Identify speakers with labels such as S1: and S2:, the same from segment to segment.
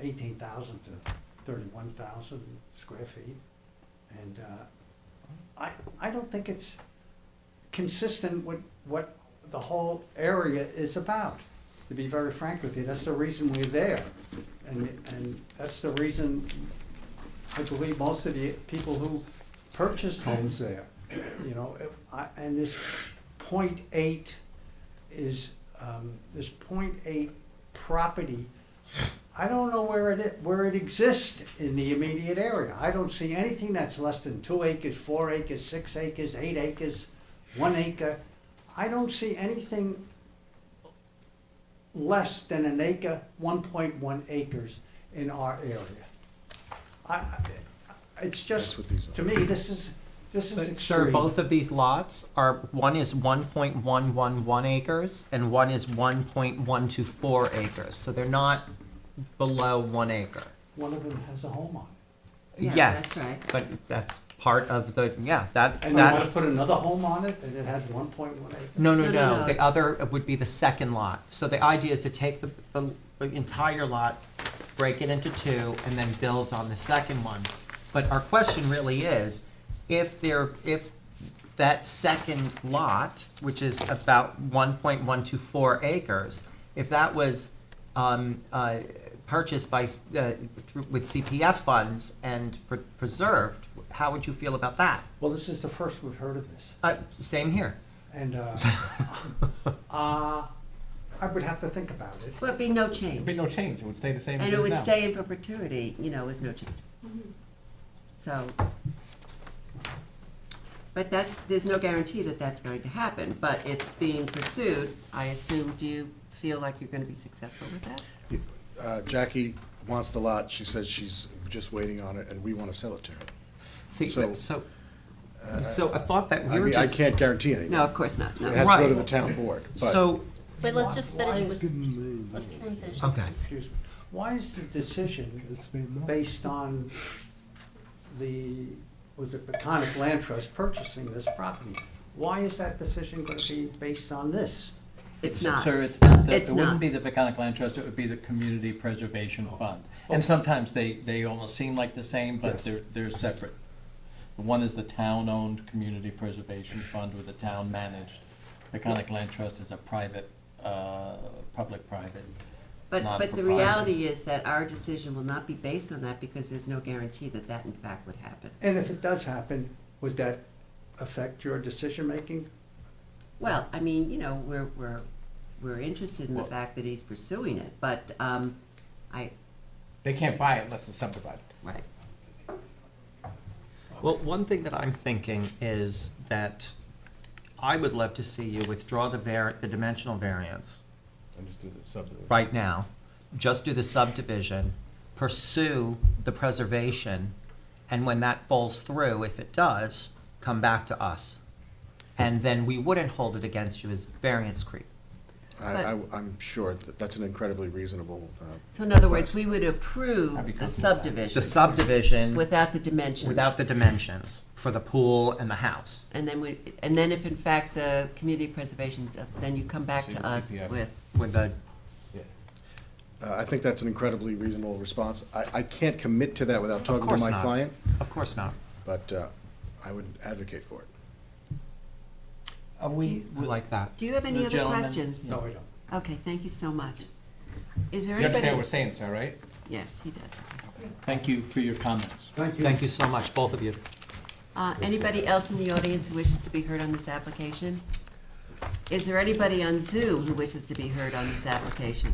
S1: eighteen thousand to thirty-one thousand square feet. And, uh, I, I don't think it's consistent with what the whole area is about. To be very frank with you, that's the reason we're there. And, and that's the reason I believe most of the people who purchased homes there, you know, it- I, and this point eight is, um, this point eight property, I don't know where it, i- where it exists in the immediate area. I don't see anything that's less than two acres, four acres, six acres, eight acres, one acre. I don't see anything less than an acre, one point one acres in our area. I, I, it's just, to me, this is, this is
S2: But,
S1: extreme.
S2: Sir, both of these lots are, one is one point one one one acres and one is one point one two four acres, so they're not below one acre.
S1: One of them has a home on it.
S3: Yeah,
S2: Yes,
S3: that's right.
S2: but that's part of the, yeah, that,
S1: And you want
S2: that,
S1: to put another home on it, and it has one point one acre?
S2: no, no,
S3: No, no,
S2: no,
S3: no,
S2: the
S3: it's-
S2: other would be the second lot. So the idea is to take the, the the entire lot, break it into two, and then build on the second one. But our question really is, if there, if that second lot, which is about one point one two four acres, if that was um, uh, purchased by s- uh, through- with CPF funds and pre- preserved, how would you feel about that?
S1: Well, this is the first we've heard of this,
S2: Uh, same here.
S1: and, uh, uh, I would have to think about it.
S3: But it'd be no
S4: There'd be
S3: change.
S4: no change, it would stay the same as
S3: And
S4: it
S3: it
S4: is
S3: would
S4: now.
S3: stay in perpetuity, you know, as no change. So. But that's, there's no guarantee that that's going to happen, but it's being pursued. I assume, do you feel like you're gonna be successful with that?
S5: Uh, Jackie wants the lot, she says she's just waiting on it, and we want to sell it to her.
S2: See,
S5: So-
S2: so, so I thought that we
S5: I
S2: were
S5: mean, I
S2: just.
S5: can't guarantee anything.
S3: No, of course not,
S5: It
S3: no.
S5: has to go to
S2: Right.
S5: the town board, but
S2: So,
S6: Wait, let's just finish with,
S7: It's
S6: let's finish this.
S2: okay.
S1: Excuse me. Why is the decision
S7: been long.
S1: based on the, was it Peconic Land Trust purchasing this property? Why is that decision going to be based on this?
S3: It's not.
S8: Sir, it's not, the-
S3: It's
S8: it
S3: not.
S8: wouldn't be the Peconic Land Trust, it would be the Community Preservation
S4: Oh.
S8: Fund. And sometimes they, they almost seem like the same, but
S1: Yes.
S8: they're, they're separate. One is the town-owned Community Preservation Fund where the town managed. Peconic Land Trust is a private, uh, public-private.
S3: But, but the
S8: non-proprietary.
S3: reality is that our decision will not be based on that because there's no guarantee that that in fact would happen.
S1: And if it does happen, would that affect your decision-making?
S3: Well, I mean, you know, we're, we're, we're interested in the
S8: Well-
S3: fact that he's pursuing it, but, um, I,
S4: They can't buy it unless it's subdivided.
S3: right.
S2: Well, one thing that I'm thinking is that I would love to see you withdraw the var, the dimensional variance
S4: And just do the subdivision.
S2: right now. Just do the subdivision, pursue the preservation, and when that falls through, if it does, come back to us. And then we wouldn't hold it against you as variance creep.
S5: I, am sure that that's an incredibly reasonable, uh,
S3: So in other words, we would approve
S4: I'd be comfortable with
S3: the
S4: that.
S3: subdivision
S2: The subdivision
S3: without the dimensions.
S2: without the dimensions for the pool and the house.
S3: And then we, and then if in fact the community preservation does, then you come back
S4: See
S3: to
S4: the
S3: us
S4: CPF.
S3: with,
S2: with the,
S5: uh, I think that's an incredibly reasonable response. I, I can't commit to that without talking to
S2: course
S5: my
S2: not.
S5: client,
S2: of course not.
S5: but, uh, I would advocate for it.
S8: Are we,
S2: I like that.
S3: do you have any
S8: The
S3: other
S8: gentleman-
S3: questions?
S1: No, I don't.
S3: Okay, thank you so much. Is there
S4: You
S3: anybody?
S4: understand what we're saying, sir, right?
S3: Yes, he does.
S8: thank you for your comments.
S1: Thank you.
S2: Thank you so much, both of you.
S3: Uh, Anybody else in the audience who wishes to be heard on this application? Is there anybody on Zoom who wishes to be heard on this application?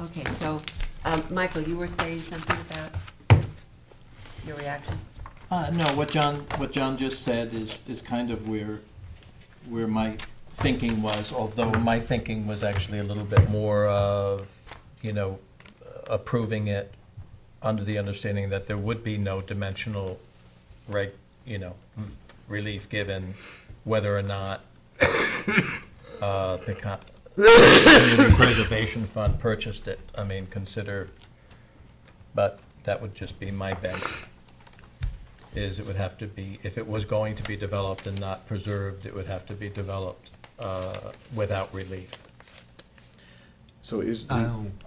S3: Okay, so, um, Michael, you were saying something about your reaction?
S8: Uh, no, what John, what John just said is, is kind of where, where my thinking was, although my thinking was actually a little bit more of, you know, approving it under the understanding that there would be no dimensional reg, you know, relief given whether or not, uh, the con- Community Preservation Fund purchased it. I mean, consider, but that would just be my bet is it would have to be, if it was going to be developed and not preserved, it would have to be developed uh, without relief.
S5: So is the
S2: Oh.